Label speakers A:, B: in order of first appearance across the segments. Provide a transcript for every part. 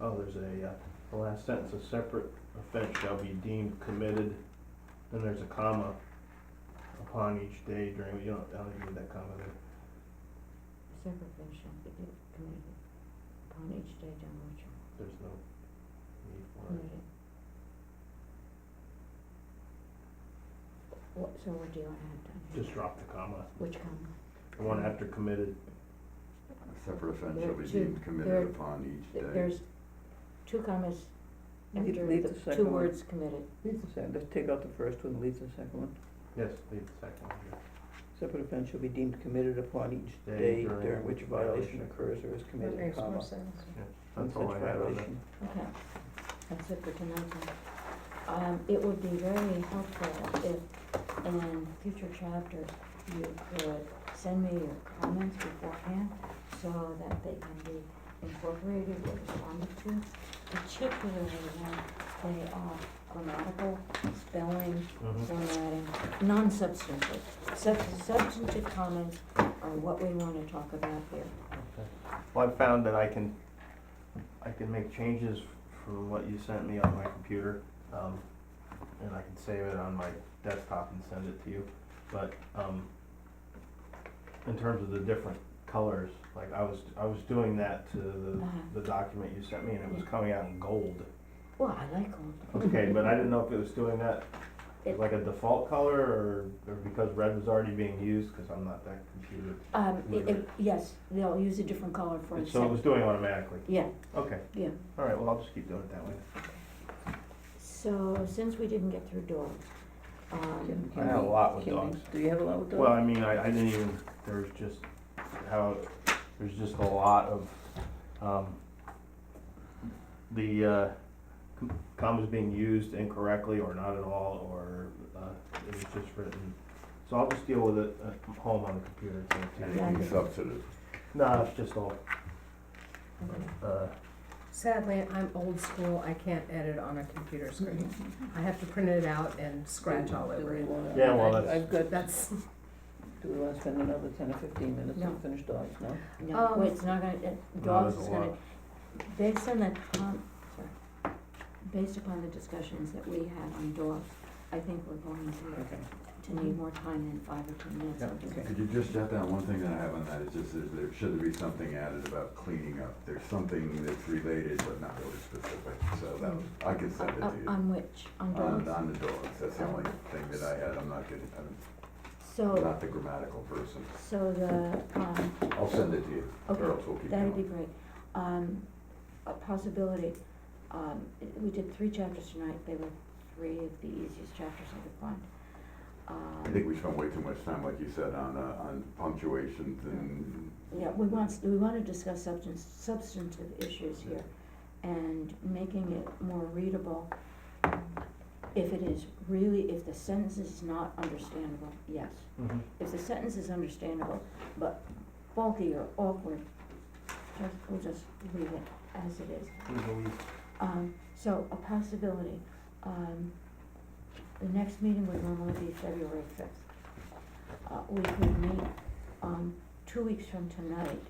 A: oh, there's a, uh, the last sentence, a separate offense shall be deemed committed, then there's a comma upon each day during, you don't, I don't even need that comma there.
B: Separate offense shall be de- committed upon each day during which are
A: There's no need for it.
B: committed. What, so what do you wanna add down here?
A: Just drop the comma.
B: Mm-hmm. Which comma?
A: The one after committed,
C: A separate offense
B: There
C: shall
B: are
C: be
B: two-
C: deemed
B: there-
C: committed upon each
B: Th-
C: day.
B: There's two commas
D: You could
B: after
D: leave
B: the
D: the second
B: two
D: one.
B: words committed.
D: Leave the second, let's take out the first one, leave the second one.
A: yes, leave the second one here.
D: Separate offense shall be deemed committed upon each day during which a violation occurs or is committed, comma.
E: sense.
A: That's all I
D: Such
A: have on that.
D: violation.
B: Okay, that's it for tonight then. Um, it would be very helpful if in future chapters you could send me your comments beforehand so that they can be incorporated or responded to, particularly when they are grammatical, spelling,
A: Mhm.
B: formatting, non-substantive. Sub- Substantive comments are what we wanna talk about here.
A: Well, I've found that I can, I can make changes from what you sent me on my computer, um, and I can save it on my desktop and send it to you. But, um, in terms of the different colors, like I was, I was doing that to
B: Uh,
A: the, the document you sent me and it was coming out in gold.
B: Well, I like all
A: Okay, but I didn't know if it was doing that as like a default color or, or because red was already being used, cause I'm not that computer.
B: Um, it,
A: Whatever.
B: it, yes, they'll use a different color for the
A: So it was
B: second.
A: doing automatically,
B: Yeah,
A: okay.
B: yeah.
A: All right, well, I'll just keep doing it that way.
B: So since we didn't get through dogs,
D: Can-
B: um,
D: can
A: I have a
D: we-
A: lot with
D: can we-
A: dogs.
D: Do you have a lot with dogs?
A: Well, I mean, I, I didn't even, there was just how, there's just a lot of, um, the, uh, com- commas being used incorrectly or not at all, or, uh, it was just written. So I'll just deal with it at home on the computer. it's okay.
B: Yeah, I
C: Anything
B: think-
C: substantive.
A: No, it's just all,
B: okay.
A: uh,
E: Sadly, I'm old school, I can't edit on a computer screen. I have to print it out and scratch all
D: Do
E: over
D: we
E: it.
D: wanna-
A: Yeah, well,
D: I-
A: that's-
D: I've got,
E: That's,
D: do we wanna spend another ten or fifteen minutes
B: No.
D: on finished dogs, no?
B: No,
E: Um,
B: wait, it's not gonna, it-
A: not
B: dogs
A: as
B: is
A: a
B: gonna,
A: lot.
B: based on the, com- sorry. Based upon the discussions that we had on dogs, I think we're going to,
D: Okay.
B: to need more time than five or ten minutes.
A: Yeah,
B: I'll just-
D: okay.
C: Could you just jot down one thing that I have on that, it's just that there should be something added about cleaning up. There's something that's related but not really specific, so that, was- I can send it
B: Uh,
C: to you.
B: On which, on
C: On,
B: dogs,
C: on the dogs, that's the only thing that I had, I'm not getting, I'm
B: so,
C: not the grammatical person.
B: so the, um,
C: I'll send it to you,
B: Okay,
C: or else we'll keep
B: That'd be
C: going.
B: great. Um, a possibility, um, we did three chapters tonight, they were three of the easiest chapters I could find.
C: I
B: Um,
C: think we spent way too much time, like you said, on, uh, on punctuations and
B: Yeah, we want, we wanna discuss substance, substantive issues here and making it more readable. If it is really, if the sentence is not understandable, yes.
A: mhm.
B: If the sentence is understandable, but bulky or awkward, just, we'll just leave it as it is. Um, so a possibility, um, the next meeting would normally be February fifth. Uh, we could meet, um, two weeks from tonight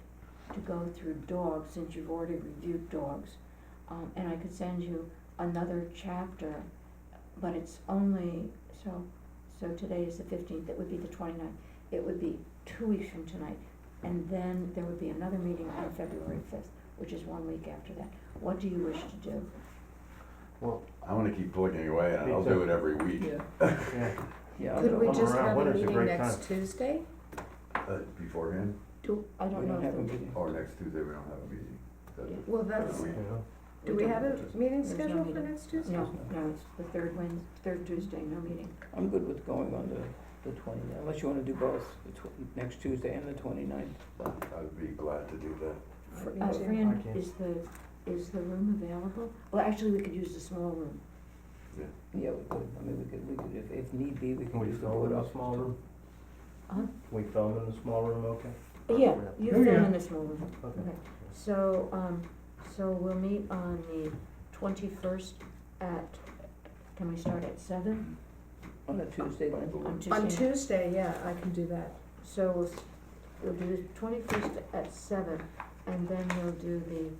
B: to go through dogs, since you've already reviewed dogs. Um, and I could send you another chapter, but it's only, so, so today is the fifteenth, it would be the 29th. It would be two weeks from tonight, and then there would be another meeting on February fifth, which is one week after that. What do you wish to do?
C: I wanna keep plugging away and
A: Me
C: I'll
A: too.
C: do it every week.
D: Yeah,
A: Yeah,
D: yeah. I'll
E: could
D: go.
E: we
A: I'm
E: just
A: around.
E: have a
A: Winter's a
E: meeting
A: great
E: next Tuesday?
C: Uh, beforehand,
B: Do, I
D: We
B: don't know
D: don't
B: if
D: have a
B: the-
D: meeting.
C: or Oh, next Tuesday, we don't have a meeting. That's
B: Yeah.
E: Well,
C: that's-
E: that's,
C: We-
A: you know,
E: do we have a
C: There's
E: meeting
B: no
E: scheduled for
B: meeting.
E: next Tuesday?
B: No, no, it's the third Wednesday, third Tuesday, no meeting.
D: I'm good with going on the, the twenty, unless you wanna do both, the tw- next Tuesday and the twenty-ninth.
C: I'd be glad to do that.
E: Fr-
B: Uh,
E: too.
B: Fran,
A: Okay.
B: is the, is the room available? Well, actually, we could use the small room.
D: Yeah, we could, I mean, we could, we could, if, if need be, we
A: Can
D: could
A: we
D: use the
A: film
D: board
A: in
D: office.
A: the small
D: too.
A: room?
B: Huh?
A: Can we film in the small room, okay?
B: Yeah, you
A: Yeah.
B: fill in the small room.
A: Okay.
B: Okay. So, um, so we'll meet on the twenty-first at, can we start at seven
D: On a Tuesday then?
B: on Tuesday?
E: On Tuesday, yeah, I can do that.
B: So we'll, s- we'll do the twenty-first at seven, and then we'll do the